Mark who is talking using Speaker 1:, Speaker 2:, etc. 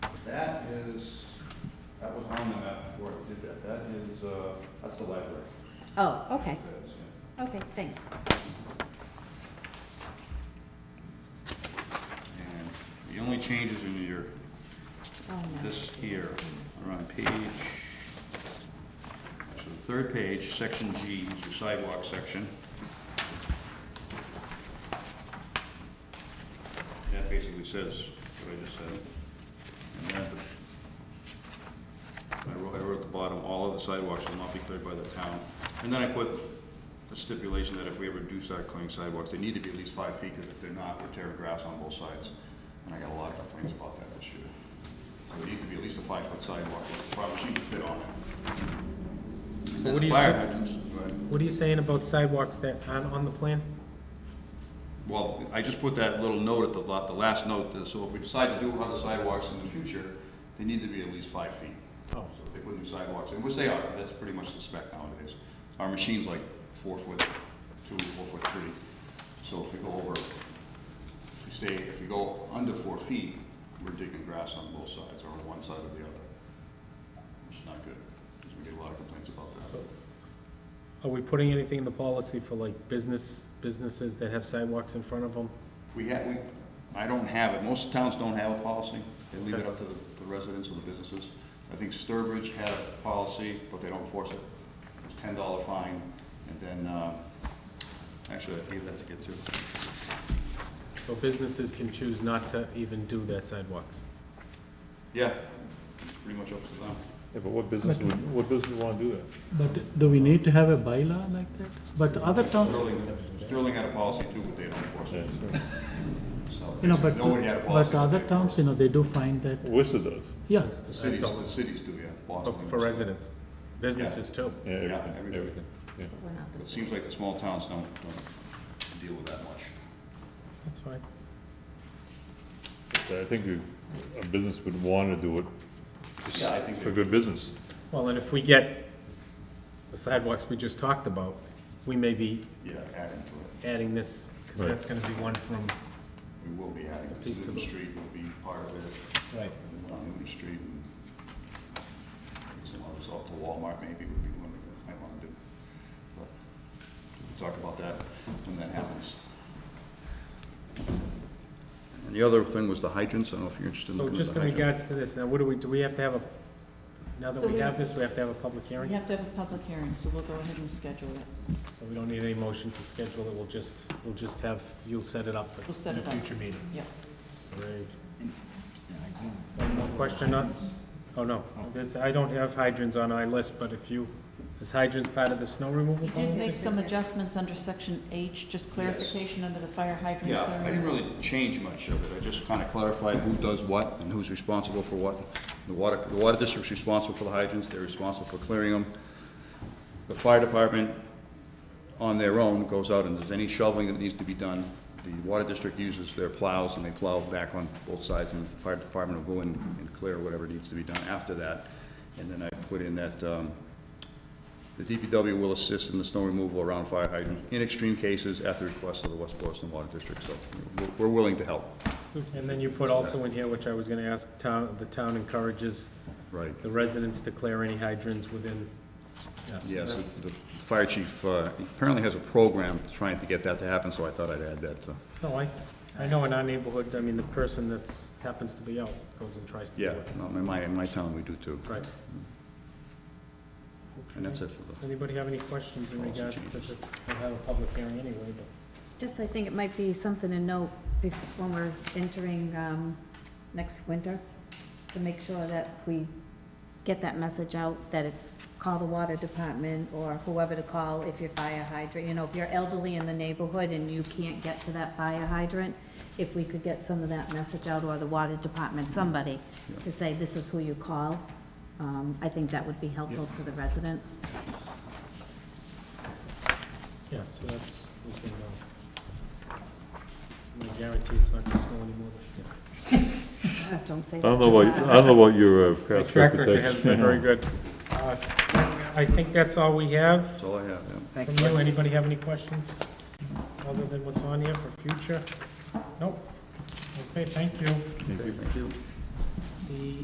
Speaker 1: found the map before I did that. That is, uh, that's the library.
Speaker 2: Oh, okay,
Speaker 1: That is, yeah.
Speaker 2: okay, thanks. Oh,
Speaker 1: And the only changes in your,
Speaker 2: Oh, no.
Speaker 1: this here, are on page, so the third page, section G, is your sidewalk section. That basically says what I just said. And then at the- I wrote, I wrote at the bottom, all of the sidewalks will not be cleared by the town. And then I put the stipulation that if we ever do start clearing sidewalks, they need to be at least five feet, because if they're not, we're tearing grass on both sides. And I got a lot of complaints about that this year. So it needs to be at least a five-foot sidewalk, with a proper sheet to fit on it.
Speaker 3: What do you
Speaker 1: Fire
Speaker 3: say-
Speaker 1: hydrants, but-
Speaker 3: What are you saying about sidewalks that aren't on the plan?
Speaker 1: Well, I just put that little note at the, lot- the last note, that- so if we decide to do other sidewalks in the future, they need to be at least five feet. So if they put new sidewalks, in, which they are, that's pretty much the spec nowadays. Our machine's like four foot two, four foot three. So if we go over, if we stay, if we go under four feet, we're digging grass on both sides, or on one side or the other. Which is not good, because we get a lot of complaints about that.
Speaker 3: Are we putting anything in the policy for like business, businesses that have sidewalks in front of them?
Speaker 1: We have, we, I don't have it, most towns don't have a policy, they leave it up to the the residents or the businesses. I think Sturbridge had a policy, but they don't enforce it. It was ten dollar fine, and then, uh, actually, I gave that to get to.
Speaker 3: So businesses can choose not to even do their sidewalks.
Speaker 1: Yeah, it's pretty much up to them.
Speaker 4: Yeah, but what business would, what business would wanna do that?
Speaker 5: But do we need to have a bylaw like that? But other towns,
Speaker 1: Sterling, Sterling had a policy too, but they don't enforce it, so.
Speaker 5: you know, but,
Speaker 1: Nobody had a policy.
Speaker 5: but other
Speaker 1: they-
Speaker 5: towns, you know, they do find that,
Speaker 4: Worcester does,
Speaker 5: yeah,
Speaker 1: The cities, the cities do, yeah, Boston.
Speaker 3: For residents, businesses too.
Speaker 4: yeah, everything,
Speaker 1: everybody.
Speaker 4: everything, yeah.
Speaker 2: We're not the
Speaker 1: It
Speaker 2: same.
Speaker 1: seems like the small towns don't, don't deal with that much.
Speaker 3: That's fine.
Speaker 4: So I think a- a business would wanna do it
Speaker 1: Yeah, I think
Speaker 4: for good business.
Speaker 3: Well, and if we get the sidewalks we just talked about, we may be
Speaker 1: Yeah, adding to it.
Speaker 3: adding this, because
Speaker 4: Right.
Speaker 3: that's gonna be one from,
Speaker 1: We will be adding, because
Speaker 3: Piece to
Speaker 1: Newton
Speaker 3: the-
Speaker 1: Street will be part of it,
Speaker 3: right,
Speaker 1: and on Newton Street. and Some others off to Walmart maybe would be one that might want to do. But we'll talk about that when that happens. And the other thing was the hydrants. I don't know if you're interested in
Speaker 3: So
Speaker 1: looking at
Speaker 3: just
Speaker 1: the
Speaker 3: in
Speaker 1: hydrant.
Speaker 3: regards to this, now what do we, do we have to have a, now that
Speaker 6: So
Speaker 3: we
Speaker 6: we-
Speaker 3: have this, we have to have a public
Speaker 6: We
Speaker 3: hearing?
Speaker 6: have to have a public hearing, so we'll go ahead and schedule it.
Speaker 3: So we don't need any motion to schedule it, we'll just, we'll just have, you'll set it up
Speaker 6: We'll set
Speaker 3: in a
Speaker 6: it up.
Speaker 3: future meeting.
Speaker 6: Yep.
Speaker 3: Great. One more question on, oh no, This- I don't have hydrants on my list, but if you, is hydrants part of the snow removal
Speaker 6: We did
Speaker 3: policy?
Speaker 6: make some adjustments under section H, just clarification under the fire hydrant.
Speaker 1: Yeah, I
Speaker 6: clearing.
Speaker 1: didn't really change much of it. I just kind of clarified who does what and who's responsible for what. The water, the water district's responsible for the hydrants, they're responsible for clearing them. The fire department, on their own, goes out and does any shoveling that needs to be done. The water district uses their plows and they plow back on both sides, and the fire department will go in and clear whatever needs to be done after that. And then I put in that, um, the DPW will assist in the snow removal around fire hydrants in extreme cases at the request of the West Boylston Water District, so we're- we're willing to help.
Speaker 3: And then you put also in here, which I was gonna ask, town, the town encourages
Speaker 1: Right.
Speaker 3: the residents to clear any hydrants within.
Speaker 1: Yes, it's- the fire chief uh, apparently has a program trying to get that to happen, so I thought I'd add that, uh, so,
Speaker 3: No, I, I know in our neighborhood, I mean, the person that's, happens to be out goes and tries to do
Speaker 1: yeah,
Speaker 3: it.
Speaker 1: no, in my, in my town, we do too.
Speaker 3: Right.
Speaker 1: And that's it for the
Speaker 3: Does anybody have any questions in
Speaker 1: Policy
Speaker 3: regards to
Speaker 1: changes.
Speaker 3: the, we'll have a public hearing anyway, but.
Speaker 2: Just, I think it might be something to note bef- when we're entering um, next winter, to make sure that we get that message out, that it's, call the water department or whoever to call if your fire hydrant, you know, if you're elderly in the neighborhood and you can't get to that fire hydrant, if we could get some of that message out, or the water department, somebody, to say, this is who you call, um, I think that would be helpful to the residents.
Speaker 3: Yeah, so that's, we can, uh, I guarantee it's not gonna snow anymore this year.
Speaker 2: Don't say
Speaker 4: I
Speaker 2: that.
Speaker 4: don't know what, I don't know what your uh,
Speaker 3: My
Speaker 4: past
Speaker 3: track record has been
Speaker 4: reputation.
Speaker 3: very good. Uh, I think that's all we have
Speaker 1: That's all I have, yeah.
Speaker 3: from you. Anybody have any questions other than what's on here for future? Nope. Okay, thank you.
Speaker 1: Thank you.
Speaker 3: The